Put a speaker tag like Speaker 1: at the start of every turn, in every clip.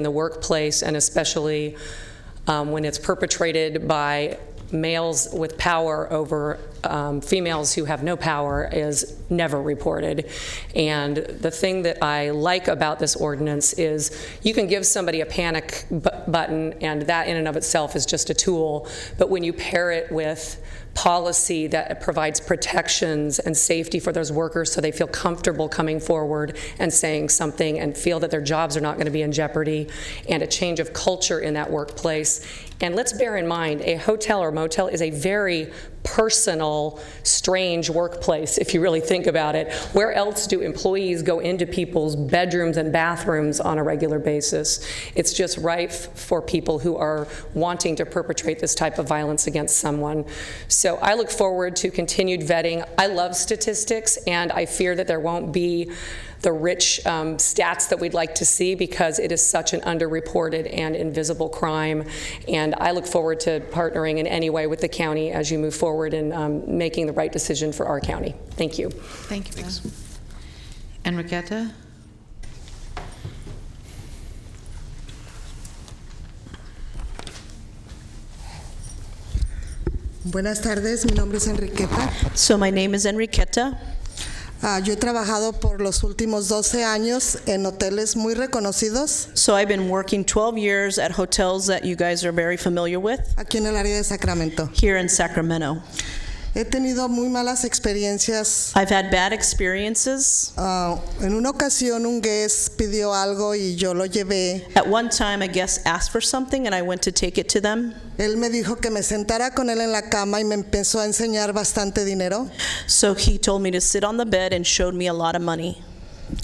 Speaker 1: in the workplace, and especially um, when it's perpetrated by males with power over um, females who have no power, is never reported. And the thing that I like about this ordinance is you can give somebody a panic bu- button, and that in and of itself is just a tool, but when you pair it with policy that provides protections and safety for those workers so they feel comfortable coming forward and saying something and feel that their jobs are not going to be in jeopardy, and a change of culture in that workplace. And let's bear in mind, a hotel or motel is a very personal, strange workplace, if you really think about it. Where else do employees go into people's bedrooms and bathrooms on a regular basis? It's just rife for people who are wanting to perpetrate this type of violence against someone. So I look forward to continued vetting. I love statistics, and I fear that there won't be the rich um, stats that we'd like to see because it is such an underreported and invisible crime. And I look forward to partnering in any way with the county as you move forward in um, making the right decision for our county. Thank you.
Speaker 2: Thank you, Beth. Enriqueta?
Speaker 3: Buenas tardes, mi nombre es Enriqueta.
Speaker 4: So my name is Enriqueta.
Speaker 3: Ah, yo he trabajado por los últimos 12 años en hoteles muy reconocidos
Speaker 4: So I've been working 12 years at hotels that you guys are very familiar with
Speaker 3: aquí en el área de Sacramento.
Speaker 4: here in Sacramento.
Speaker 3: He tenido muy malas experiencias.
Speaker 4: I've had bad experiences.
Speaker 3: Ah, en una ocasión un guest pidió algo y yo lo llevé.
Speaker 4: At one time, a guest asked for something and I went to take it to them.
Speaker 3: Él me dijo que me sentara con él en la cama y me empezó a enseñar bastante dinero.
Speaker 4: So he told me to sit on the bed and showed me a lot of money.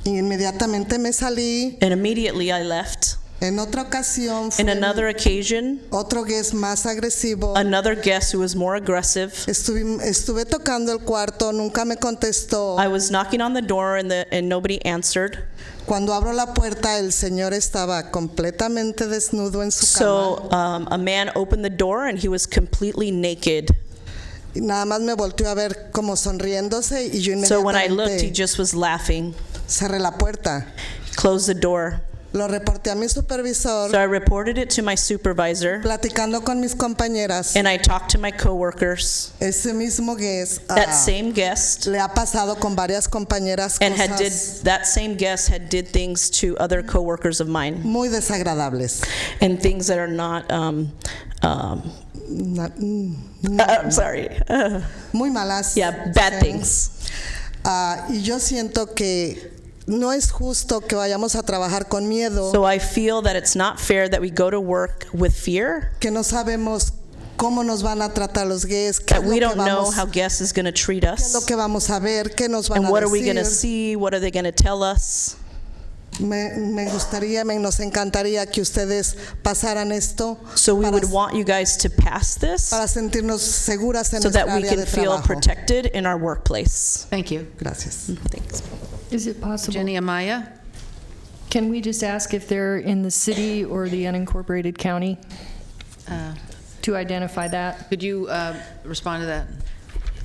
Speaker 3: Y inmediatamente me salí.
Speaker 4: And immediately I left.
Speaker 3: En otra ocasión fue
Speaker 4: In another occasion,
Speaker 3: otro guest más agresivo.
Speaker 4: another guest who was more aggressive.
Speaker 3: Estuve, estuve tocando el cuarto, nunca me contestó.
Speaker 4: I was knocking on the door and, the, and nobody answered.
Speaker 3: Cuando abro la puerta, el señor estaba completamente desnudo en su cama.
Speaker 4: So um, a man opened the door and he was completely naked.
Speaker 3: Y nada más me volteó a ver como sonriéndose y yo
Speaker 4: So when I looked, he
Speaker 3: inmediatamente
Speaker 4: just was laughing.
Speaker 3: cerré la puerta.
Speaker 4: Closed the door.
Speaker 3: Lo reporté a mi supervisor,
Speaker 4: So I reported it to my supervisor,
Speaker 3: platicando con mis compañeras.
Speaker 4: and I talked to my coworkers.
Speaker 3: Ese mismo guest ah,
Speaker 4: That same guest
Speaker 3: le ha pasado con varias compañeras
Speaker 4: and had did
Speaker 3: cosas
Speaker 4: that same guest had did things to other coworkers of mine,
Speaker 3: muy desagradables.
Speaker 4: and things that are not. Um, um,
Speaker 3: Na- mm,
Speaker 4: uh, I'm sorry. Uh,
Speaker 3: Muy malas.
Speaker 4: yeah, bad
Speaker 3: Sí.
Speaker 4: things.
Speaker 3: Ah, y yo siento que no es justo que vayamos a trabajar con miedo,
Speaker 4: So I feel that it's not fair that we go to work with fear
Speaker 3: que no sabemos cómo nos van a tratar los gays, qué es
Speaker 4: that
Speaker 3: lo
Speaker 4: we
Speaker 3: que
Speaker 4: don't know
Speaker 3: vamos,
Speaker 4: how guests is going to treat
Speaker 3: qué es lo
Speaker 4: us,
Speaker 3: que vamos a ver, qué nos van
Speaker 4: and
Speaker 3: a
Speaker 4: what are we going to
Speaker 3: decir.
Speaker 4: see? What are they going to tell us?
Speaker 3: Me, me gustaría, me nos encantaría que ustedes pasaran esto
Speaker 4: So we
Speaker 3: para,
Speaker 4: would want you guys to pass this.
Speaker 3: para sentirnos seguras en
Speaker 4: so
Speaker 3: nuestra
Speaker 4: that we
Speaker 3: área
Speaker 4: can
Speaker 3: de
Speaker 4: feel
Speaker 3: trabajo.
Speaker 4: protected in our workplace.
Speaker 2: Thank you.
Speaker 3: Gracias.
Speaker 4: Thanks.
Speaker 5: Is it possible,
Speaker 2: Jenny Amaya?
Speaker 5: can we just ask if they're in the city or the unincorporated county
Speaker 2: uh,
Speaker 5: to identify that?
Speaker 2: Could you uh, respond to that?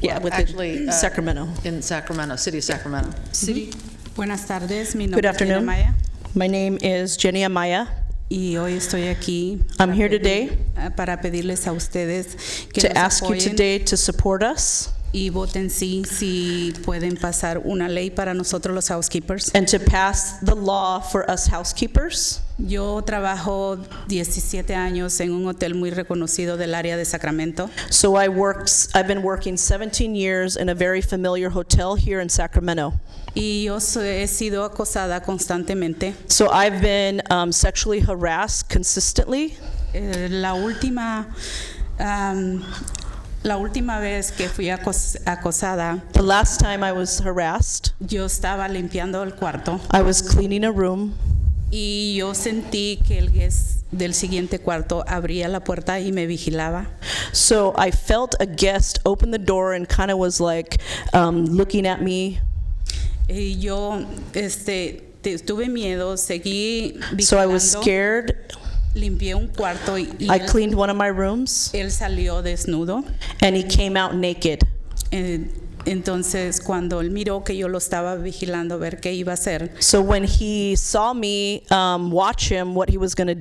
Speaker 4: Yeah,
Speaker 2: Well,
Speaker 4: with the
Speaker 2: actually, uh,
Speaker 4: Sacramento.
Speaker 2: In Sacramento, City of Sacramento.
Speaker 6: City. Buenas tardes, mi
Speaker 4: Good
Speaker 6: nombre es Jenny
Speaker 4: afternoon.
Speaker 6: Maya
Speaker 4: My name is Jenny Amaya.
Speaker 6: y hoy estoy aquí
Speaker 4: I'm here today
Speaker 6: ah, para pedirles a ustedes que
Speaker 4: to
Speaker 6: nos
Speaker 4: ask you
Speaker 6: apoyen
Speaker 4: today to support us
Speaker 6: y voten sí si pueden pasar una ley para nosotros los housekeepers.
Speaker 4: and to pass the law for us housekeepers.
Speaker 6: Yo trabajo 17 años en un hotel muy reconocido del área de Sacramento.
Speaker 4: So I worked, I've been working 17 years in a very familiar hotel here in Sacramento.
Speaker 6: Y yo so- he sido acosada constantemente.
Speaker 4: So I've been um, sexually harassed consistently.
Speaker 6: Eh, la última, am, la última vez que fui acos- acosada,
Speaker 4: The last time I was harassed,
Speaker 6: yo estaba limpiando el cuarto
Speaker 4: I was cleaning a room
Speaker 6: y yo sentí que el guest del siguiente cuarto abría la puerta y me vigilaba.
Speaker 4: So I felt a guest open the door and kind of was like um, looking at me.
Speaker 6: Y yo este, te- tuve miedo, seguí vigilando.
Speaker 4: So I was scared.
Speaker 6: Limpié un cuarto y, y
Speaker 4: I
Speaker 6: él,
Speaker 4: cleaned one of my rooms
Speaker 6: él salió desnudo.
Speaker 4: and he came out naked.
Speaker 6: Eh, Entonces, cuando él miró que yo lo estaba vigilando a ver qué iba a hacer,
Speaker 4: So when he saw me um, watch him, what he was going to do.